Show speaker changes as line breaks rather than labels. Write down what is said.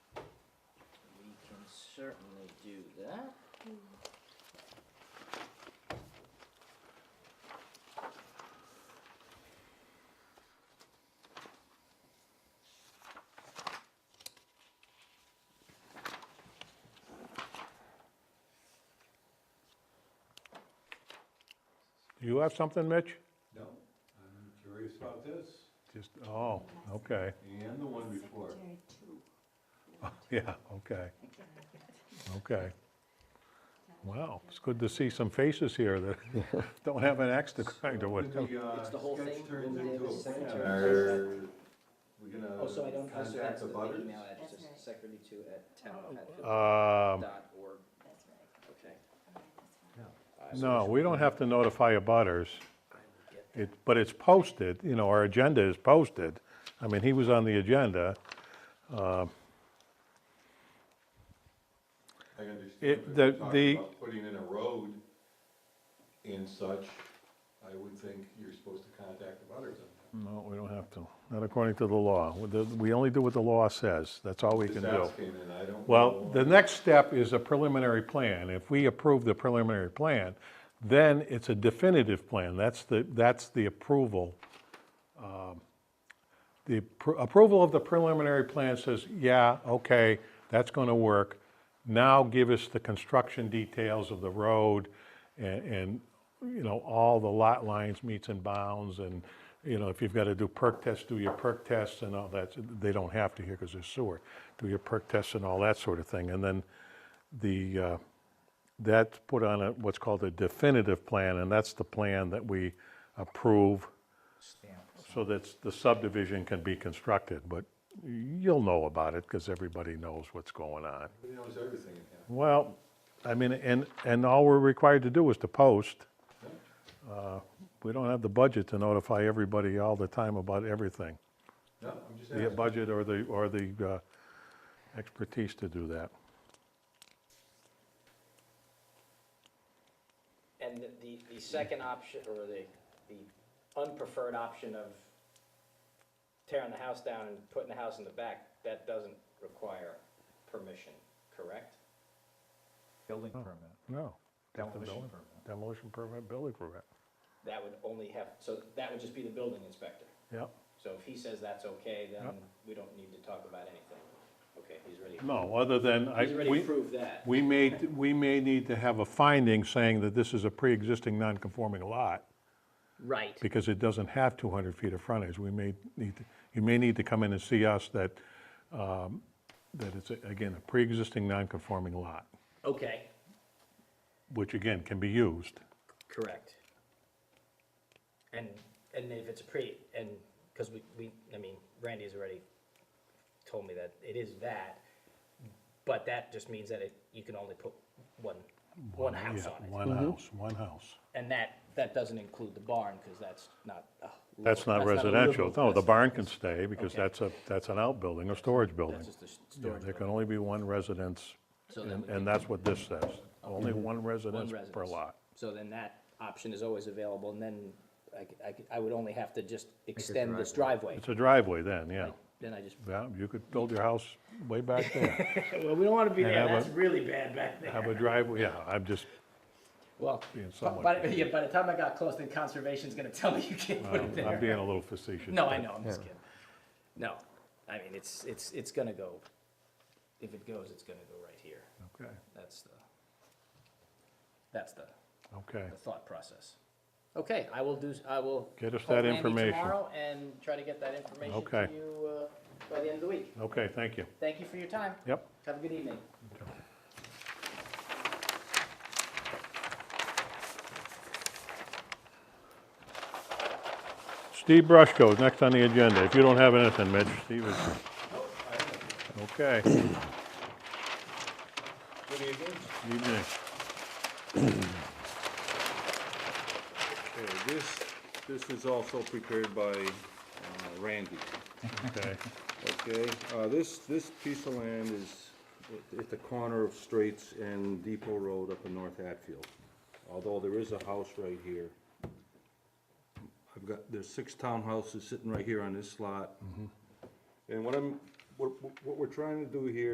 certainly do that.
You have something, Mitch?
No, I'm curious about this,
Just, oh, okay,
and the one before.
yeah, okay. Okay. Wow, it's good to see some faces here that don't have an axe to grind or
When
what.
uh,
It's the whole
sketch
thing,
turns
when they
into a
have the
plan,
center.
are we
Oh, so I
gonna
don't, oh, so
contact
that's
the
the the
butters?
email address,
That's right.
secretary2 at
Oh,
town at Phil
Um,
dot org,
That's right.
okay.
No, we don't have to notify abutters. It, but it's posted, you know, our agenda is posted. I mean, he was on the agenda.
I understand,
It-
if
the-
you're talking
the-
about putting in a road and such, I would think you're supposed to contact the butters. on
No, we don't have to, not according to the law. We- the- We only do what the law says, that's all we
that.
can
This
do.
house came in, I don't.
Well,
know.
the next step is a preliminary plan. If we approve the preliminary plan, then it's a definitive plan. That's the, that's the approval. um, The appro- approval of the preliminary plan says, yeah, okay, that's going to work. Now give us the construction details of the road and, and, you know, all the lot lines, meets and bounds, and, you know, if you've got to do perk tests, do your perk tests and all that. They don't have to here because there's sewer. Do your perk tests and all that sort of thing. And then the, uh, that's put on a, what's called a definitive plan, and that's the plan that we approve so that the subdivision can be constructed. But you'll know about it because everybody knows what's going on.
Everybody knows everything in town.
Well, I mean, and, and all we're required to do is to post. Uh, We don't have the budget to notify everybody all the time about everything.
No, I'm just
The
asking.
budget or the, or the uh, expertise to do that.
And the- the, the second option, or the, the unpreferred option of tearing the house down and putting the house in the back, that doesn't require permission, correct?
Building permit,
No.
demolition permit.
Demolition permit, building permit.
That would only have, so that would just be the building inspector.
Yep.
So if he says that's okay, then
Yep.
we don't need to talk about anything. Okay, he's already,
No, other than, I,
he's already
we,
proved that.
we may, we may need to have a finding saying that this is a pre-existing non-conforming lot,
Right.
because it doesn't have 200 feet of frontage. We may need, to- you may need to come in and see us that, um, that it's, again, a pre-existing non-conforming lot,
Okay,
which again, can be used.
correct. And, and if it's a pre, and, because we, we, I mean, Randy's already told me that it is that, but that just means that it, you can only put one, one house
Yeah,
on it.
One house, one house.
And that, that doesn't include the barn, because that's not. a
That's
livable-
not
a
residential.
livable-
No, the
that's-
barn can stay, because
Okay.
that's a, that's an outbuilding, a storage building.
That's just a s-
Yeah,
storage
there can
building.
only be one residence,
So
and
then we
and
can- Mm-hmm.
that's what this says. Only one residence per
residence.
lot.
So then that option is always available, and then I, c- I c- I would only have to just extend this driveway.
It's a driveway then, yeah.
Then I just.
Yeah, you could build your house way back there.
Well, we don't want to be
And there. have a- That's
really bad back there.
Have a driveway, yeah, I'm just,
Well,
being
by,
somewhat
by- yeah, by the time I got close, then conservation's gonna tell me you can't put it
I'm
there.
being a little facetious.
No, I
but-
know, I'm just kidding. No, I mean, it's, it's, it's gonna go, if it goes, it's gonna go right here.
Okay,
That's the, that's the,
okay.
the thought process. Okay, I will do, s- I will.
Get us
call
that
Randy
information.
Tomorrow and try to get that information
Okay.
to you, uh, by the end of the week.
Okay, thank you.
Thank you for your time.
Yep.
Have a good evening.
Steve Brushko is next on the agenda. If you don't have anything, Mitch, Steve is. Okay.
Good evening.
Evening.
Okay, this, this is also prepared by uh, Randy,
Okay.
okay? Uh, This, this piece of land is at- at the corner of Straits and Depot Road up in North Hatfield. Although there is a house right here. I've got, there's six townhouses sitting right here on this lot. And what I'm, what, what we're trying to do here